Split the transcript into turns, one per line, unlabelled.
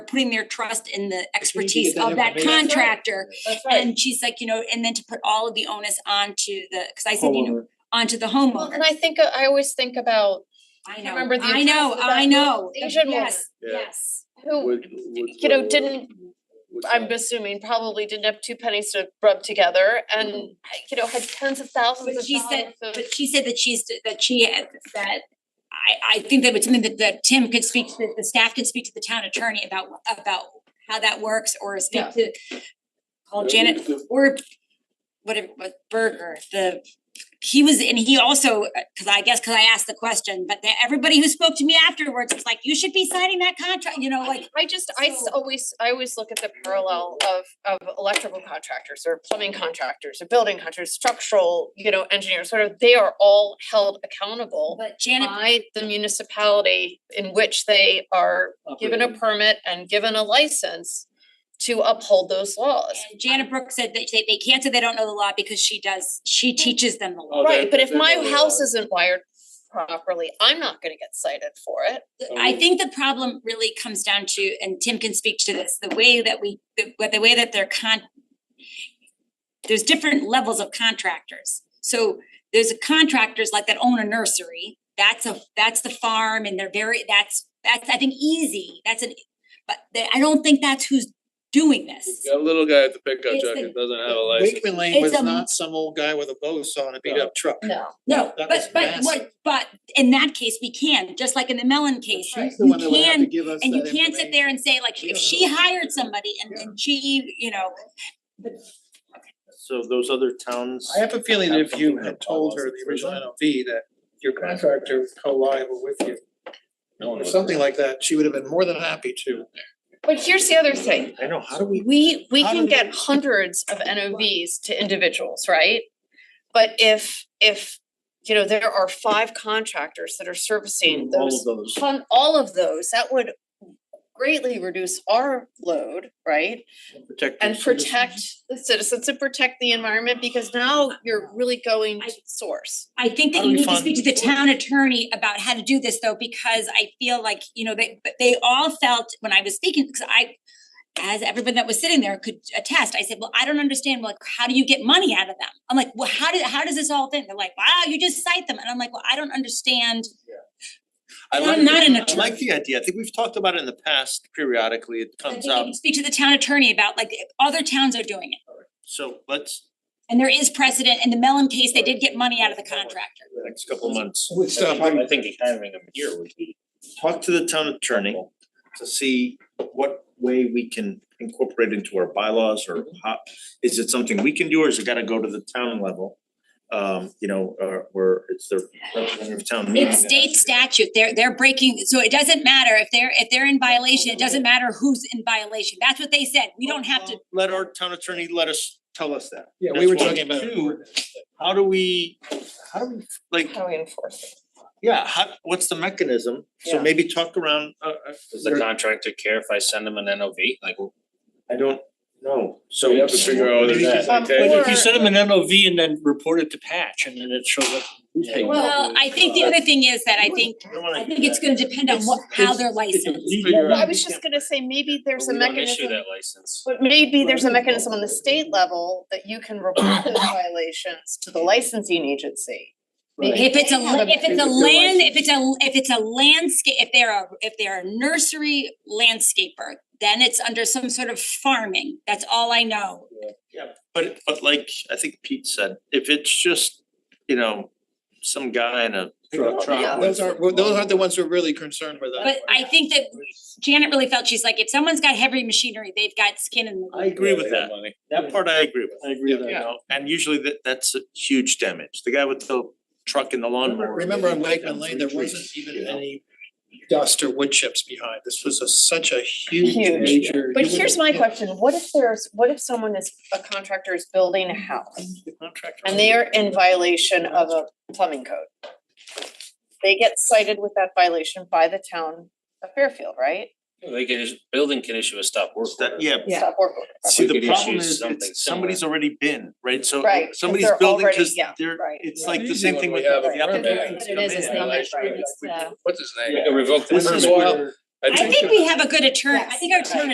putting their trust in the
we need to
expertise
get that
of that
information. That's right.
contractor.
That's
And she's like, you know, and then to put all of the onus onto the, cause I said, you know, onto the
Well,
homeowner.
and I think, uh, I always think about
I
can't
know,
remember the
I know,
address of
I
that
know.
little Asian woman.
Yes,
Yeah.
yes.
who,
Would- would-
you know,
would-
didn't,
would-
I'm assuming probably didn't have two pennies to rub together and, you know, had tens of thousands
Mm-hmm. But
of
she said,
dollars of.
but she said that she's, that she, had- that I, I think that was something that, that Tim could speak to, that the staff could speak to the town attorney about, about how that works or
Yeah.
speak to call
Yeah,
Janet
it's the-
or whatever, but Berger, the, he was, and he also, uh, cause I guess, cause I asked the question, but the- everybody who spoke to me afterwards was like, you should be signing that contract, you know, like,
I just, I s-
So-
always, I always look at the parallel of of electrical contractors or plumbing contractors or building contractors, structural, you know, engineers, sort of, they are all held accountable
but Janet
by the municipality in which they are given a permit and given a license to uphold those laws.
And Janet Brooks said that they, they can't say they don't know the law because she does, she teaches them the law.
Oh,
Right,
they-
but if
they
my
know the
house
law.
isn't wired properly, I'm not gonna get cited for it.
I think the problem really comes down to, and Tim can speak to this, the way that we, the, the way that they're con. There's different levels of contractors. So there's contractors like that own a nursery. That's a, that's the farm and they're very, that's, that's, I think, easy. That's an, but they, I don't think that's who's doing this.
Got a little guy at the pickup
It's
truck
the-
that doesn't have a license.
Wakeman Lane
It's
was
a-
not some old guy with a bow saw and a beat up truck.
No.
No,
That was
but but
massive.
what, but in that case, we can, just like in the Mellon case,
Right.
He's the
you
one that would have to
can,
give us
and you
that
can't sit there and say like,
We
if
don't
she
know.
hired somebody and and she, you know.
So those other towns.
I have a feeling that if you
Have
had told her the original NOV that your contractor was co-liable with you
No one
or
knows.
something like that, she would have been more than happy to.
But here's the other thing,
I know, how
How
do
do we,
We, we
How
can
do they-
get hundreds of NOVs to individuals, right? But if, if, you know, there are five contractors that are
we,
servicing
all of
those,
those,
on all of those, that would greatly reduce our load, right?
protect
And
the citizens?
protect the citizens and protect the environment, because now you're really going to the source.
I think
How
that
do
you
we
need to
fund-
speak to the town attorney about how to do this though, because I feel like, you know, they, but they all felt, when I was speaking, because I. As everyone that was sitting there could attest, I said, well, I don't understand, like, how do you get money out of them? I'm like, well, how did, how does this all thing? They're like, wow, you just cite them, and I'm like, well, I don't understand.
I
I'm
like,
not an
I like the idea, I think we've talked about it in the past periodically, it
I think
comes
you
up,
can speak to the town attorney about like other towns are doing it.
so let's,
And there is precedent. In the Mellon case, they did get money out of the contractor.
the next couple of months.
Would stop, I'm-
I think having them here would be.
talk to the town attorney to see what way we can incorporate into our bylaws or how, is it something we can do or is it gotta go to the town level? Um, you know, or where it's the representative town meeting.
It's
that
state
has to do
statute. They're they're breaking, so it doesn't matter if they're if they're in violation, it doesn't matter who's in violation. That's what they said. We don't have to.
it. Let our town attorney let us, tell us that.
Yeah, we were
That's one.
talking about.
Two, how do we, how do we, like,
How we enforce it.
yeah, how, what's the mechanism? So
Yeah.
maybe talk around, uh,
Um,
uh,
Does the contractor care if I send them an NOV? Like,
I don't know, so.
We have to figure out whether
Maybe
it's
Um,
like
or-
If you send them an NOV and then report it to patch and then it shows up.
Yeah.
Well, I think the other thing is that I think
I don't wanna
I
do
think it's
that.
gonna depend on what how they're licensed.
Figure
Well, I
out-
was just gonna say, maybe there's a
we don't issue
mechanism.
that license.
But maybe there's a mechanism on the state level that you can report those violations to the licensing agency.
If it's a
They have
la- if it's a
particular
land, if
license.
it's a if it's a landscape, if they're a if they're a nursery landscaper, then it's under some sort of farming. That's all I know.
But but like I think Pete said, if it's just, you know, some guy in a truck
Yeah.
Those aren't, well, those aren't the ones who are really concerned with that.
But I think that Janet really felt she's like, if somene's got heavy machinery, they've got skin in the
I agree with that,
Money.
that part I agree with,
I agree
with
you know, and usually that that's a huge damage, the guy with the truck and the lawnmower.
Remember on Wakeman Lane, there wasn't even any dust or wood chips behind. This was a such a huge
Huge.
major.
But
you would-
here's my
yeah.
question, what if there's, what if someone is, a contractor is building a house
Contractor.
and they are in violation of a plumbing code? They get cited with that violation by the town of Fairfield, right?
They can, is- building can issue a stop work order.
That, yeah,
Stop work order.
see,
We
the
could
problem
issue
is
something
it's somebody's already been, right, so
Right, 'cause
somebody's
they're
building,
already-
cause
yeah,
they're,
right.
it's like the
Easy
same
when
thing
we
with
have
the
a permit.
applicants
That's
come in.
What's his name?
We can revoke the
This is
permit.
why,
I think we have a good attorney, I think our attorney